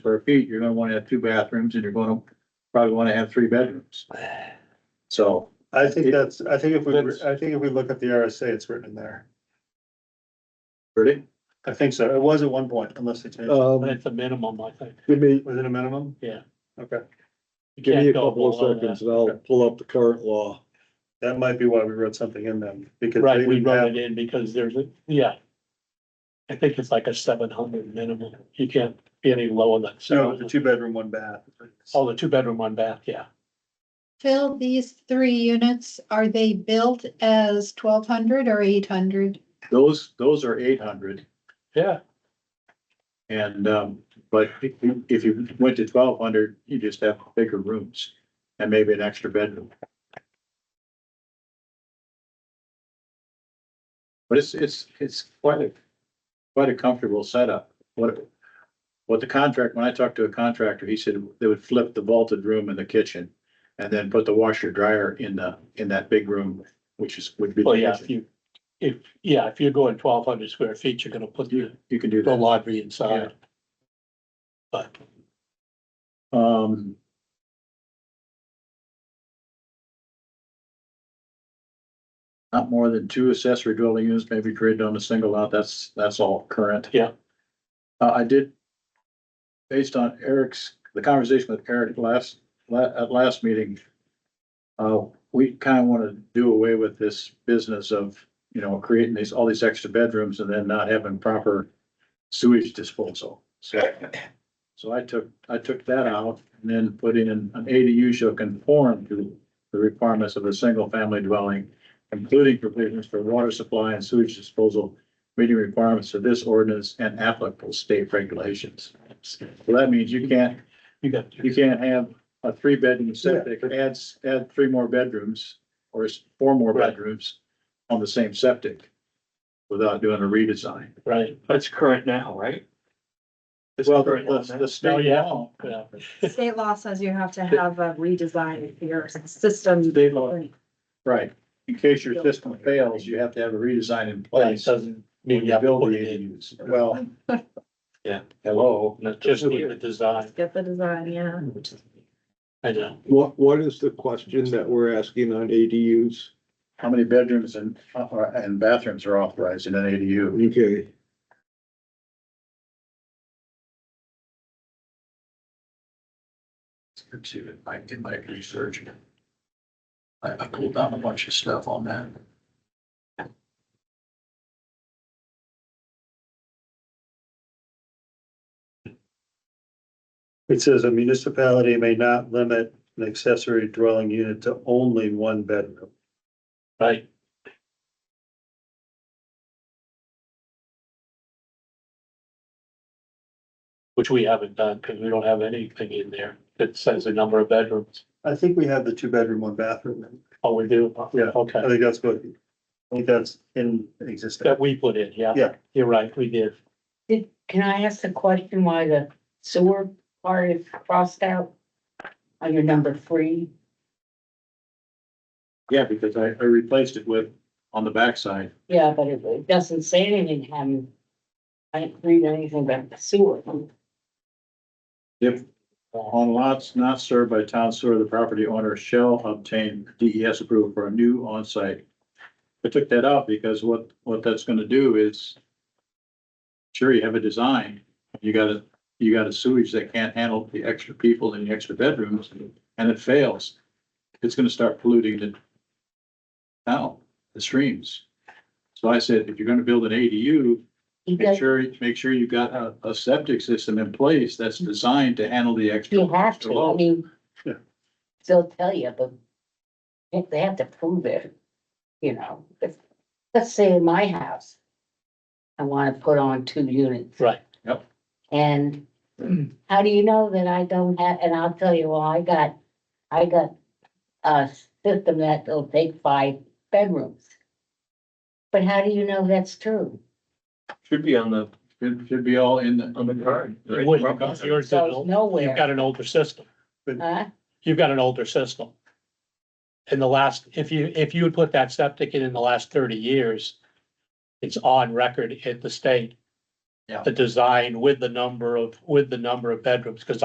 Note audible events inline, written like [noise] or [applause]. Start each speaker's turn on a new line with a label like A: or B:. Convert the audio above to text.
A: square feet, you're gonna wanna have two bathrooms and you're gonna probably wanna have three bedrooms. So,
B: I think that's, I think if we,
A: That's-
B: I think if we look at the RSA, it's written in there.
A: pretty,
B: I think so. It was at one point, unless they changed. it.
C: But
D: Um,
C: it's a minimum, I think.
D: give me,
B: Was it a minimum?
C: Uh, Yeah.
B: Okay,
C: You
D: give me a
C: can't go
D: couple
C: below
D: of
C: that.
D: seconds and I'll pull up the current law.
B: that might be why we wrote something in them, because they
C: Right, we
B: would
C: wrote
B: have,
C: it in because there's a, yeah. I think it's like a seven hundred minimum. You can't be any lower than
B: no, it's a
C: seven.
B: two bedroom, one bath.
C: Oh, the two bedroom, one bath, yeah.
E: Phil, these three units, are they built as twelve hundred or eight hundred?
A: those, those are eight hundred.
C: Yeah,
A: And, um, but if you- if you went to twelve hundred, you just have bigger rooms and maybe an extra bedroom. But it's, it's, it's quite a, quite a comfortable setup. What, what the contract, when I talked to a contractor, he said they would flip the vaulted room in the kitchen and then put the washer dryer in the, in that big room, which is, would be. the
C: well, Oh, yeah, if
A: kitchen.
C: you, if, yeah, if you're going twelve hundred square feet, you're gonna put the,
A: You, you can do
C: the
A: that.
C: laundry inside. But
A: Um. Not more than two accessory dwelling units may be created on a single lot. That's, that's all current.
C: Yeah.
A: Uh, I did. Based on Eric's, the conversation with Eric last, la- at last meeting. Uh, we kind of want to do away with this business of, you know, creating these, all these extra bedrooms and then not having proper sewage disposal. So so I took, I took that out and then put in an ADU shall conform to the requirements of a single family dwelling, including provisions for water supply and sewage disposal, meeting requirements of this ordinance and applicable state regulations. So that means you can't,
C: you got,
A: you can't have a three bedroom septic, add, s- add three more bedrooms or s- four more
C: Right.
A: bedrooms on the same septic without doing a redesign.
C: right,
D: That's current now, right?
A: Well, the, the
C: Oh,
A: state
C: yeah.
A: law.
C: yeah.
F: State law says you have to have a redesign of your system.
A: State law. Right, in case your system fails, you have to have a redesign in
C: But it
A: place.
C: doesn't
A: when
C: mean you
A: you
C: have to
A: build
C: put
A: the
C: it in.
A: ADUs. [laughs] Well.
D: Yeah.
A: Hello.
C: Not Just need the design,
F: Get the design, yeah.
C: I know.
D: What, what is the question that we're asking on ADUs?
A: How many bedrooms and, uh, and bathrooms are authorized in an ADU?
D: Okay,
A: Let's see if I did my research. I, I pulled down a bunch of stuff on that.
B: It says a municipality may not limit an accessory dwelling unit to only one bedroom.
C: Right, which we haven't done because we don't have anything in there that says the number of bedrooms.
B: I think we have the two bedroom, one bathroom.
C: Oh, we do?
B: Yeah. I
C: Okay,
B: think that's what, I think that's in existence.
C: that we put in, yeah.
B: Yeah.
C: You're right, we did.
G: Did, can I ask the question why the sewer part is crossed out? On your number three,
A: Yeah, because I, I replaced it with, on the backside,
G: yeah, but it, it doesn't say anything, having. I didn't read anything about the sewer.
A: if on lots not served by town sewer, the property owner shall obtain DES approval for a new on-site. I took that out because what, what that's gonna do is, sure, you have a design, you got a, you got a sewage that can't handle the extra people and the extra bedrooms, and it fails. It's gonna start polluting the town, the streams. So I said, if you're gonna build an ADU,
G: You
A: Make
G: guys,
A: sure, make sure you've got a, a septic system in place that's designed to handle the extra.
G: you have to, I mean.
B: Yeah.
G: They'll tell you, but. If they have to prove it, you know, if, let's say in my house. I wanna put on two units.
C: Right.
A: Yep.
G: And how do you know that I don't have, and I'll tell you, well, I got, I got a system that'll take five bedrooms. But how do you know that's true?
D: should be on the,
A: Should, should be all in the.
D: on the card.
C: You wouldn't,
D: Right.
C: because yours is an
G: So
C: old-
G: nowhere,
C: You've got an older system.
G: huh?
C: You've got an older system. In the last, if you, if you would put that septic in in the last thirty years, it's on record at the state
A: Yeah.
C: The design with the number of, with the number of bedrooms, because